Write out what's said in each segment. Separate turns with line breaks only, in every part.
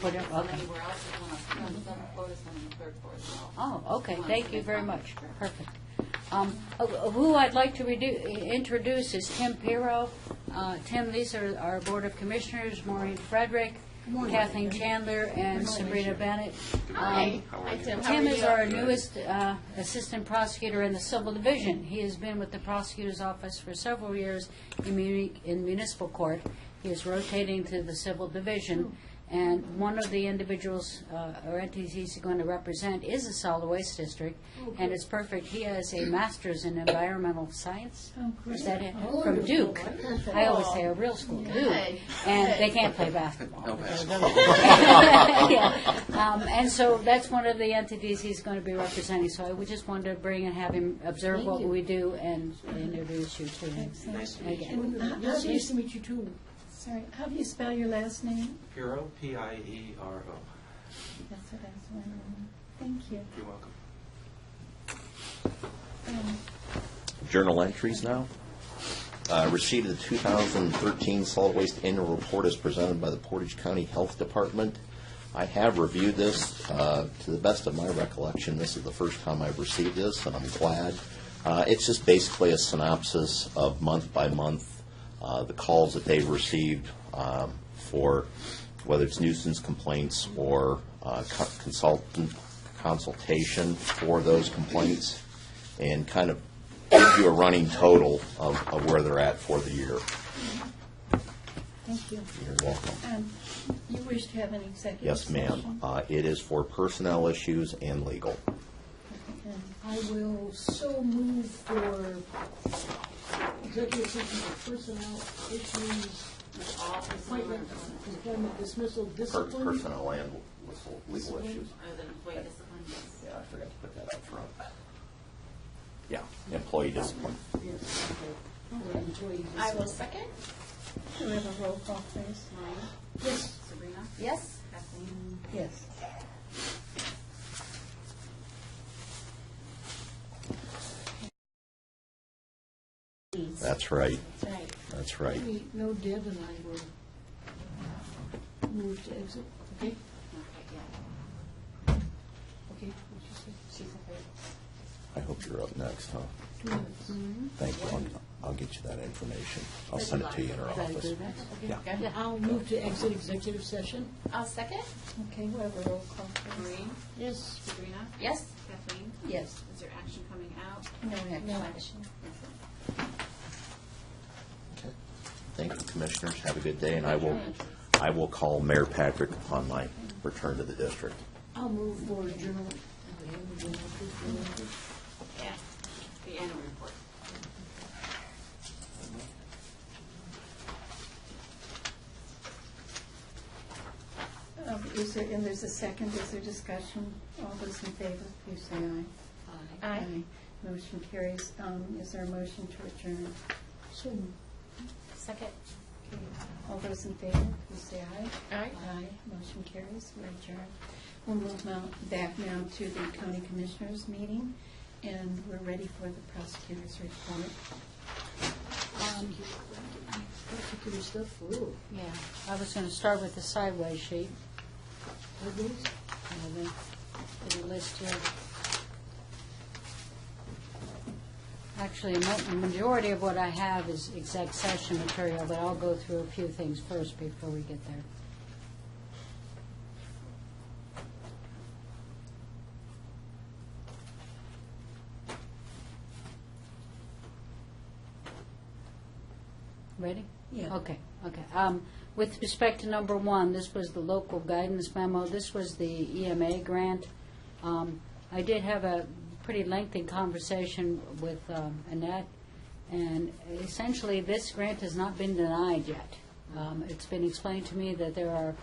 Put it-
If there's
okay.
Anywhere else you want to, on the second floor, there's one on the third floor as well.
Oh, okay,
One
thank
for
you
the
very
common
much,
area.
perfect. Um, uh, Who I'd like to redu- introduce is Tim Pirro. Uh, Tim, these are our Board of Commissioners, Maureen Frederick, Kathleen Chandler, and Sabrina Bennett. Um,
Hi, Tim. How
Tim
are
is
you?
our newest uh, Assistant Prosecutor in the Civil Division. He has been with the Prosecutor's Office for several years in muni- in municipal court. He is rotating to the Civil Division, and one of the individuals uh, or entities he's going to represent is the solid waste district,
Oh,
and it's perfect. He has a master's in environmental science. Is that it? From Duke. I always say a real school, Duke. And they can't play basketball.
No basketball.
Yeah. Um, And so that's one of the entities he's going to be representing, so I would just wanted to bring and have him observe what we do and introduce you to him.
Nice to meet you.
Again.
And how- how do you-
Nice to meet you too.
Sorry, how do you spell your last name?
Piero, P-I-E-R-O.
That's what I was wondering. Thank you.
You're welcome.
Um,
journal entries now. Uh, Receipt of the 2013 solid waste annual report is presented by the Portage County Health Department. I have reviewed this. uh, To the best of my recollection, this is the first time I've received this, and I'm glad. Uh, It's just basically a synopsis of month by month, uh, the calls that they've received um, for whether it's nuisance complaints or uh, co- consultant consultation for those complaints, and kind of gives you a running total of, of where they're at for the year.
Thank you.
You're welcome.
Um, You wish to have an executive
Yes, ma'am.
session?
Uh, it is for personnel issues and legal.
And
I will so move for executive session for personnel issues,
All for some
appointment, employment dismissal,
Per-
discipline.
Personnel and legal- legal
Discipline.
issues.
Or the employee discipline, yes.
Yeah, I forgot to put that up front. Yeah, employee discipline.
Yes, okay. Or employee
I will
discipline.
second.
do we have a roll call, please?
Maureen?
Yes.
Sabrina?
Yes.
Kathleen?
Yes.
That's right,
That's right.
that's right.
We know Deb and I will move to exit, okay?
Okay, yeah.
Okay, what you said,
She's a third.
I hope you're up next, huh?
two minutes.
Thank you. I'll- I'll get you that information. I'll send it to you in our
Did I
office.
do that?
Yeah, I'll move to exit executive session.
I'll second.
Okay, we have a roll call, please.
Maureen?
Yes.
Sabrina?
Yes.
Kathleen?
Yes.
Is there action coming out?
No
No.
action.
Okay. Thank you, Commissioners. Have a good day, and I will, I will call Mayor Patrick upon my return to the district.
I'll move for journal.
Yeah. The annual report.
Um, Is there, and there's a second, is there discussion? All those in favor, please say aye. Aye. Motion carries. Um, Is there a motion to adjourn?
So,
Second.
Okay. All those in favor, please say aye.
Aye.
Aye, motion carries, we're adjourned. We'll move now, back now to the county commissioners meeting, and we're ready for the prosecutor's report.
Um,
particular stuff, ooh,
Yeah, I was going to start with the sideways sheet.
are these?
And then Put a list here. Actually, mo- the majority of what I have is exec session material, but I'll go through a few things first before we get there. Ready?
Yeah.
Okay, okay. Um, With respect to number one, this was the local guidance memo, this was the EMA grant. Um, I did have a pretty lengthy conversation with um, Annette, and essentially, this grant has not been denied yet. Um, It's been explained to me that there are,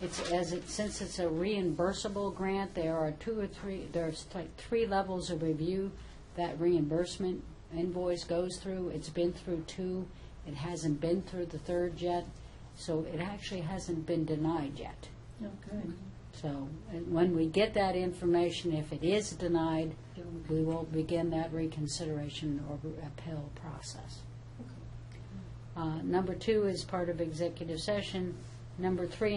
it's, as it, since it's a reimbursable grant, there are two or three, there's like three levels of review that reimbursement invoice goes through. It's been through two, it hasn't been through the third yet, so it actually hasn't been denied yet.
Oh, good.
So, and when we get that information, if it is denied, we will begin that reconsideration or appeal process. Uh, Number two is part of executive session. Number three